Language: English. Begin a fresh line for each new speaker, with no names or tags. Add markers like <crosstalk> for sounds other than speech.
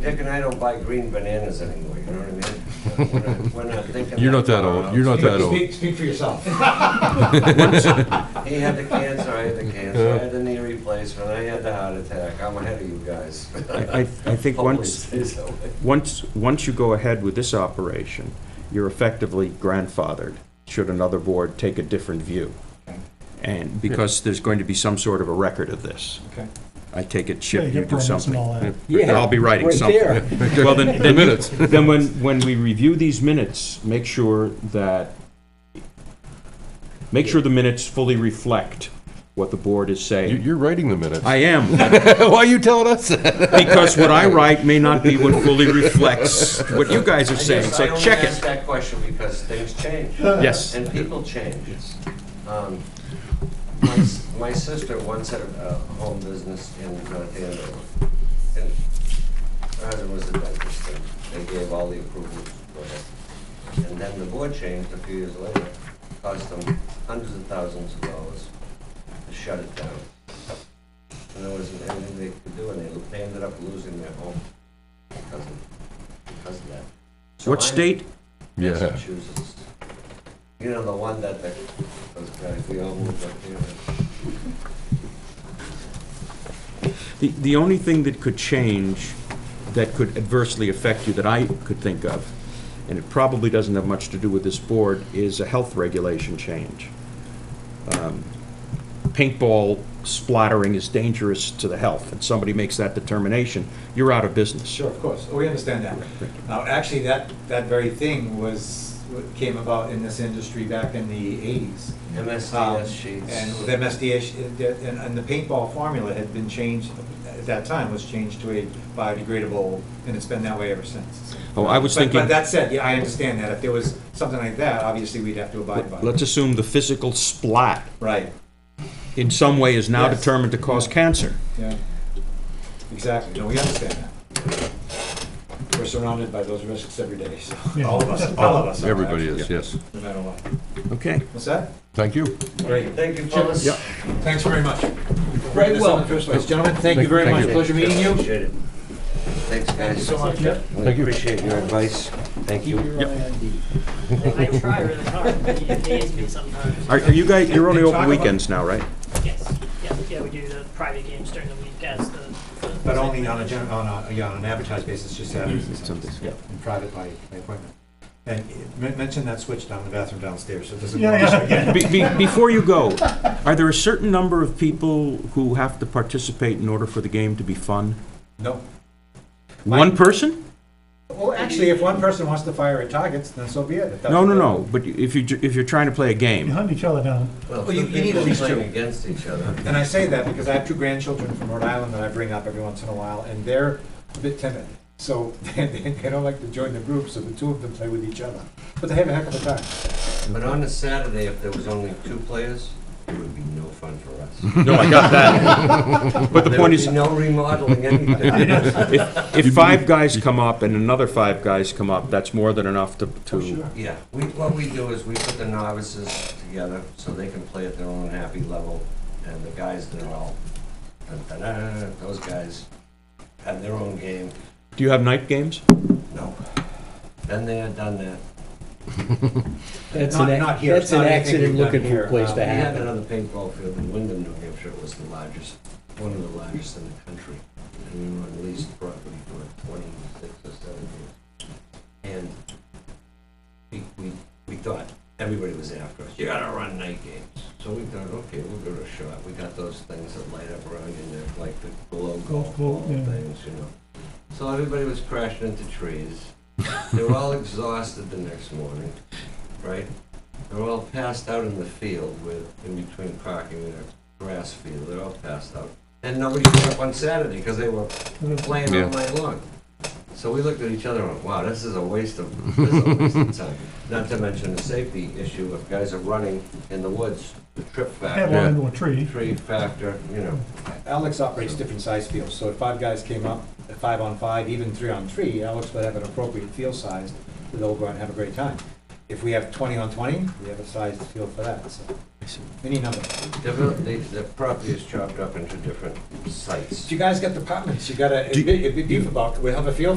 Dick and I don't buy green bananas anymore, you know what I
<laughs>
mean? We're not- We're not thinking.
You're not that old. You're not that old.
Speak, speak for yourself.
He had the cancer, I had the cancer, I had the knee replacement, I had the heart attack, I'm ahead of you guys.
I, I I
<laughs>
think
Hopefully
once,
it stays that way.
once, once you go ahead with this operation, you're effectively grandfathered, should another board take a different view. And because there's going to be some sort of a record of this.
Okay.
I take it,
Yeah,
Chip, you
get
do
permits and
something.
all that.
Yeah, I'll be writing
right
something.
there. <laughs>
Well, then, then, you-
minutes.
then when, when we review these minutes, make sure that, make sure the minutes fully reflect what the board is
You-
saying.
You're writing the minutes.
I am.
<laughs> Why are you telling us that?
Because what I write may not be what fully reflects what you guys are saying,
I
so
only
check
ask
it.
that question because things change.
Yes.
And people change. Um, My s- my sister once had a a home business in North Andover. And her husband was a dentist, and they gave all the approvals for it. And then the board changed a few years later, cost them hundreds of thousands of dollars to shut it down. And there wasn't anything they could do, and they- they ended up losing their home because of, because of that. So
What
I'm-
state?
Yeah.
Massachusetts. You know, the one that the, those guys, we all moved up here.
The, the only thing that could change, that could adversely affect you, that I could think of, and it probably doesn't have much to do with this board, is a health regulation change. Um, Paintball splattering is dangerous to the health, and somebody makes that determination, you're out of business.
Sure, of course, Oh, we understand that. Now, actually, that, that very thing was, what came about in this industry back in the eighties. Um,
MSDS sheets.
And with MSDS, sh- and, and the paintball formula had been changed, at that time, was changed to a biodegradable, and it's been that way ever since.
Oh, I was
But-
thinking-
But that said, yeah, I understand that, if there was something like that, obviously, we'd have to abide by
Let's
it.
assume the physical splat
Right,
in some way is now
Yes.
determined to cause cancer.
yeah, exactly, no, we understand that. We're surrounded by those risks every day, so, all of us, <laughs> all of us. are,
Everybody
actually,
is, yes.
No matter what.
Okay.
What's that?
Thank you.
Great.
Thank you, fellas.
Yeah.
Thanks very much. Very well. Gentlemen, thank you very
Thank
much.
you.
Pleasure meeting you.
Appreciate it. Thanks, guys.
So much.
We
Thank you.
Appreciate your advice. Thank you.
I try really hard, but it days me sometimes.
Are, are you guys, you're only
Talk
open
about-
weekends now, right?
Yes, yeah, yeah, we do the private games during the week as the. the-
But only on a, gen- on a, yeah, on an advertised basis, just Saturdays and Sundays,
yeah.
and private by by appointment. And men- mention that switch down in the bathroom downstairs, so it doesn't.
Yeah, yeah.
Be, be, before you go, are there a certain number of people who have to participate in order for the game to be fun?
<laughs> No.
One person?
Well, actually, if one person wants to fire at targets, then so be it. If that's-
No, no, no, but if you, ju- if you're trying to play a
You
game,
hunt each other down.
Well,
Well, you-
two
you need
people
at least
playing
two.
against each other.
And I say that because I have two grandchildren from Rhode Island that I bring up every once in a while, and they're a bit timid. So <laughs> they, they they don't like to join the group, so the two of them play with each other. But they have a heck of a time.
But on a Saturday, if there was only two players, it would be no fun for us.
no, I got
<laughs>
that. <laughs> But the
There would
point is,
be no remodeling
<laughs>
anything.
if, if five guys come up and another five guys come up, that's more than enough to,
Oh,
to,
Yeah, we, what we do is we put the novices together so they can play at their own happy level, and the guys that are all, dun, dun, dun, dun, those guys have their own game.
do you have night games?
No. Been there, done that.
That's
Not-
an, ac-
not here. It's
that's an
not anything
accident
we've done
looking for
here. Um,
a place
We
to
had
happen.
another paintball field in Wyndham, New Hampshire, it was the largest, one of the largest in the country. And we were on leased property for like twenty-six or seven years. And we, we, we thought, everybody was after us, you gotta run night games. So we thought, okay, we'll give it a shot. We got those things that light up around you, they're like the glow golf
ball,
ball
yeah.
things, you know. So everybody was crashing into trees. They were all <laughs> exhausted the next morning, right? They're all passed out in the field with, in between parking and a grass field, they're all passed out. And nobody showed up on Saturday because they were playing
Yeah.
all night long. So we looked at each other and went, wow, this is a waste of, this is a waste of time. Not to mention the safety issue if guys are running in the woods, the trip
Head
factor,
one into a tree.
tree factor, you know.
Alex operates different size fields, so if five guys came up, at five on five, even three on three, Alex would have an appropriate field size, they'll go out and have a great time. If we have twenty on twenty, we have a sized field for that, so. any number.
Develop- The, the property is chopped up into different sites.
If you guys got departments, you gotta,
Do-
it'd be deep about, we have a feel